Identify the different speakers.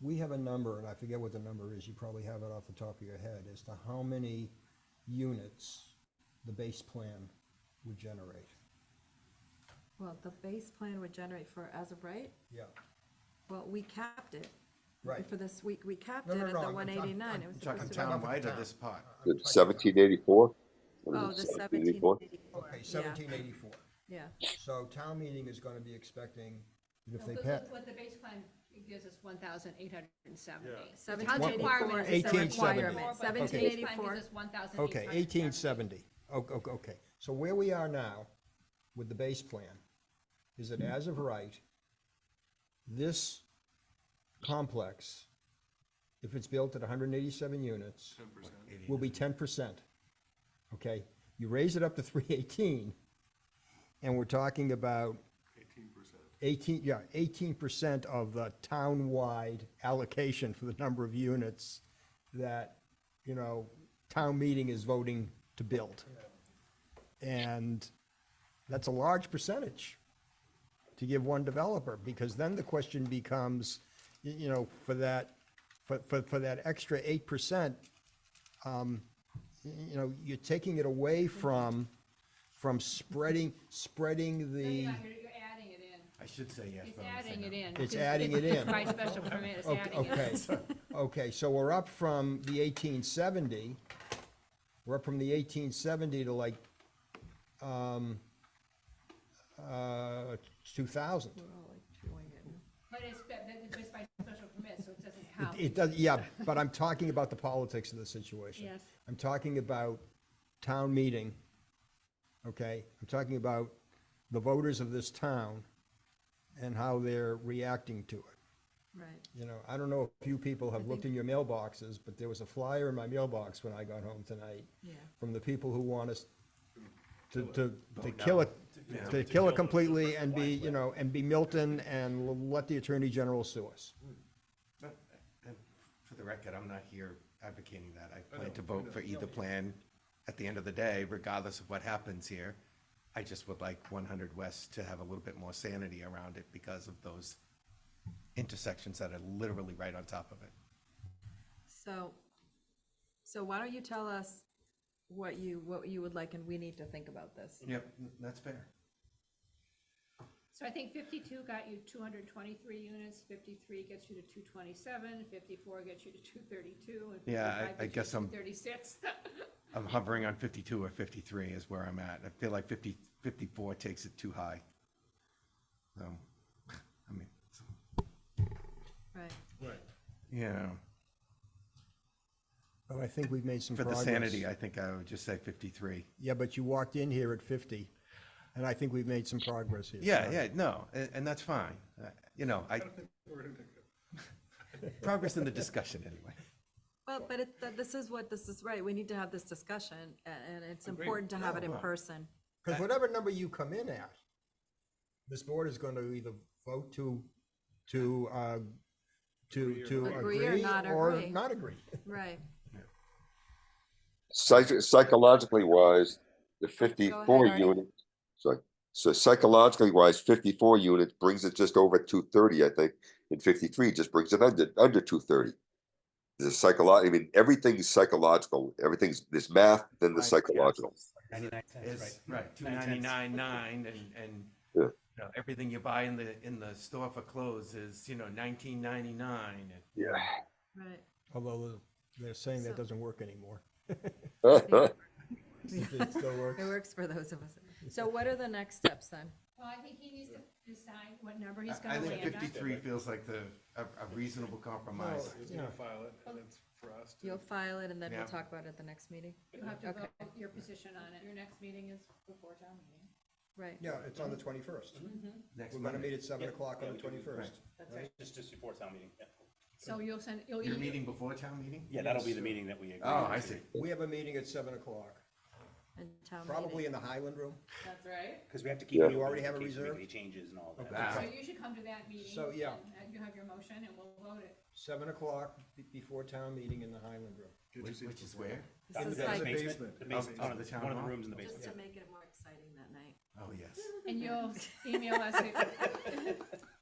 Speaker 1: We have a number, and I forget what the number is, you probably have it off the top of your head, as to how many units the base plan would generate.
Speaker 2: Well, the base plan would generate for as of right,
Speaker 1: Yeah,
Speaker 2: well, we capped it.
Speaker 1: right.
Speaker 2: For this week, we capped
Speaker 1: No,
Speaker 2: it
Speaker 1: no, no,
Speaker 2: at the
Speaker 1: I'm- I'm-
Speaker 2: one eighty-nine,
Speaker 1: I'm
Speaker 2: it was
Speaker 1: talking
Speaker 2: supposed to
Speaker 1: town.
Speaker 2: be.
Speaker 3: townwide
Speaker 1: Town.
Speaker 3: or this part?
Speaker 1: I'm
Speaker 4: The
Speaker 1: talking-
Speaker 4: seventeen eighty-four?
Speaker 2: Oh, the seventeen eighty-four,
Speaker 1: Okay,
Speaker 2: yeah,
Speaker 1: seventeen eighty-four.
Speaker 2: yeah.
Speaker 1: So town meeting is gonna be expecting, if
Speaker 5: No,
Speaker 1: they
Speaker 5: but
Speaker 1: pass,
Speaker 5: What what the base plan gives us one thousand eight hundred and seventy.
Speaker 2: Seventeen eighty-four is the
Speaker 1: 1870.
Speaker 2: requirement, seventeen
Speaker 5: Seventeen
Speaker 2: eighty-four,
Speaker 5: eighty-four. One thousand eight
Speaker 1: okay,
Speaker 5: hundred.
Speaker 1: eighteen seventy. Okay, okay, so where we are now with the base plan is that as of right, this complex, if it's built at hundred and eighty-seven units, will be ten percent. Okay, you raise it up to three eighteen, and we're talking about
Speaker 6: Eighteen percent.
Speaker 1: eighteen, yeah, eighteen percent of the town-wide allocation for the number of units that, you know, town meeting is voting to build. And that's a large percentage to give one developer, because then the question becomes, you, you know, for that, for, for, for that extra eight percent, um, y- you know, you're taking it away from, from spreading, spreading the.
Speaker 5: No, you're not, you're, you're adding it in.
Speaker 3: I should say yes.
Speaker 5: It's
Speaker 3: but I'm gonna say
Speaker 5: adding
Speaker 3: no.
Speaker 5: it in.
Speaker 1: It's adding it in.
Speaker 5: By special permit, it's
Speaker 1: Okay,
Speaker 5: adding it.
Speaker 1: okay, okay, so we're up from the eighteen seventy, we're up from the eighteen seventy to like, um, uh, two thousand.
Speaker 5: But it's, but it's just by special permit, so it doesn't count.
Speaker 1: It does, yeah, but I'm talking about the politics of the situation.
Speaker 5: Yes.
Speaker 1: I'm talking about town meeting, okay? I'm talking about the voters of this town and how they're reacting to it.
Speaker 2: right.
Speaker 1: You know, I don't know if you people have looked in your mailboxes, but there was a flyer in my mailbox when I got home tonight.
Speaker 2: Yeah.
Speaker 1: From the people who want us to, to, to kill it, to kill it completely and be, you know, and be Milton and l- let the Attorney General sue us.
Speaker 3: But, uh, For the record, I'm not here advocating that. I plan to vote for either plan at the end of the day, regardless of what happens here. I just would like one hundred West to have a little bit more sanity around it because of those intersections that are literally right on top of it.
Speaker 2: So, so why don't you tell us what you, what you would like, and we need to think about this.
Speaker 3: Yep, that's fair.
Speaker 5: So I think fifty-two got you two hundred twenty-three units, fifty-three gets you to two twenty-seven, fifty-four gets you to two thirty-two, and
Speaker 3: Yeah, I-
Speaker 5: fifty-five
Speaker 3: I
Speaker 5: gets you
Speaker 3: guess
Speaker 5: to
Speaker 3: I'm-
Speaker 5: thirty-six.
Speaker 3: I'm hovering on fifty-two or fifty-three is where I'm at. I feel like 50 54 takes it too high. So, I mean,
Speaker 2: Right,
Speaker 6: Right.
Speaker 3: you know.
Speaker 1: But I think we've made some
Speaker 3: For the
Speaker 1: progress.
Speaker 3: sanity, I think I would just say 53.
Speaker 1: Yeah, but you walked in here at fifty, and I think we've made some progress here.
Speaker 3: Yeah, yeah, no, and, and that's fine. Uh, You know, I,
Speaker 6: We're gonna take it.
Speaker 3: progress in the discussion anyway.
Speaker 2: well, but it, th- this is what, this is, right, we need to have this discussion, a- and it's important to have it in person.
Speaker 1: Because whatever number you come in at, this board is going to either vote to, to, uh, to, to
Speaker 2: Agree or
Speaker 1: agree
Speaker 2: not
Speaker 1: or
Speaker 2: agree.
Speaker 1: not agree.
Speaker 2: Right,
Speaker 4: Psych- psychologically wise, the fifty-four
Speaker 2: Artie.
Speaker 4: unit, so, so psychologically wise, fifty-four units brings it just over two thirty, I think. And fifty-three just brings it under, under two thirty. The psycholo, I mean, everything's psychological, everything's, there's math, then the psychological.
Speaker 7: Ninety-nine
Speaker 3: It's,
Speaker 7: cents, right?
Speaker 3: right, 299.9 and, and,
Speaker 4: Yeah.
Speaker 3: you know, everything you buy in the, in the store for clothes is, you know, 1999.
Speaker 4: Yeah.
Speaker 2: right.
Speaker 1: Although uh, they're saying that
Speaker 2: So-
Speaker 1: doesn't work anymore.
Speaker 4: Well,
Speaker 1: It still works.
Speaker 2: It works for those of us. So what are the next steps then?
Speaker 5: Well, I think he needs to decide what number he's
Speaker 3: I
Speaker 5: gonna
Speaker 3: think
Speaker 5: land on.
Speaker 3: 53 feels like the, a a reasonable compromise.
Speaker 1: Oh,
Speaker 6: He's gonna file it, and it's for us to.
Speaker 2: You'll file it and then we'll
Speaker 3: Yeah.
Speaker 2: talk about it at the next meeting?
Speaker 5: You have to
Speaker 2: Okay.
Speaker 5: vote your position on it. Your next meeting is before town meeting.
Speaker 2: Right,
Speaker 1: Yeah, it's on the twenty-first.
Speaker 3: Next
Speaker 1: We're going to
Speaker 3: Monday.
Speaker 1: meet at seven o'clock on the twenty-first.
Speaker 7: Just, just before town meeting, yeah.
Speaker 5: So you'll send, you'll.
Speaker 3: Your
Speaker 5: email-
Speaker 3: meeting before town meeting?
Speaker 7: Yeah, that'll be the meeting that we agree.
Speaker 3: Oh, I
Speaker 7: on.
Speaker 3: see.
Speaker 1: We have a meeting at seven o'clock,
Speaker 2: and town
Speaker 1: probably
Speaker 2: meeting.
Speaker 1: in the Highland Room.
Speaker 5: That's right.
Speaker 7: Cause we have to keep.
Speaker 4: Yeah.
Speaker 7: it
Speaker 1: You already have
Speaker 7: open in
Speaker 1: a
Speaker 7: case
Speaker 1: reserve?
Speaker 7: Any changes and all
Speaker 1: Okay.
Speaker 7: that.
Speaker 3: Wow.
Speaker 5: So you should come to that meeting.
Speaker 1: So, yeah.
Speaker 5: and uh, You have your motion and we'll vote it.
Speaker 1: Seven o'clock be- before town meeting in the Highland Room.
Speaker 3: Which which is where?
Speaker 7: In
Speaker 2: This
Speaker 7: the
Speaker 2: is like,
Speaker 7: basement, the basement,
Speaker 3: Out of the town
Speaker 7: one of the
Speaker 3: hall?
Speaker 7: rooms in the
Speaker 2: just
Speaker 7: basement.
Speaker 2: to make it more exciting that night.
Speaker 3: Oh, yes.
Speaker 5: And you'll email us. it.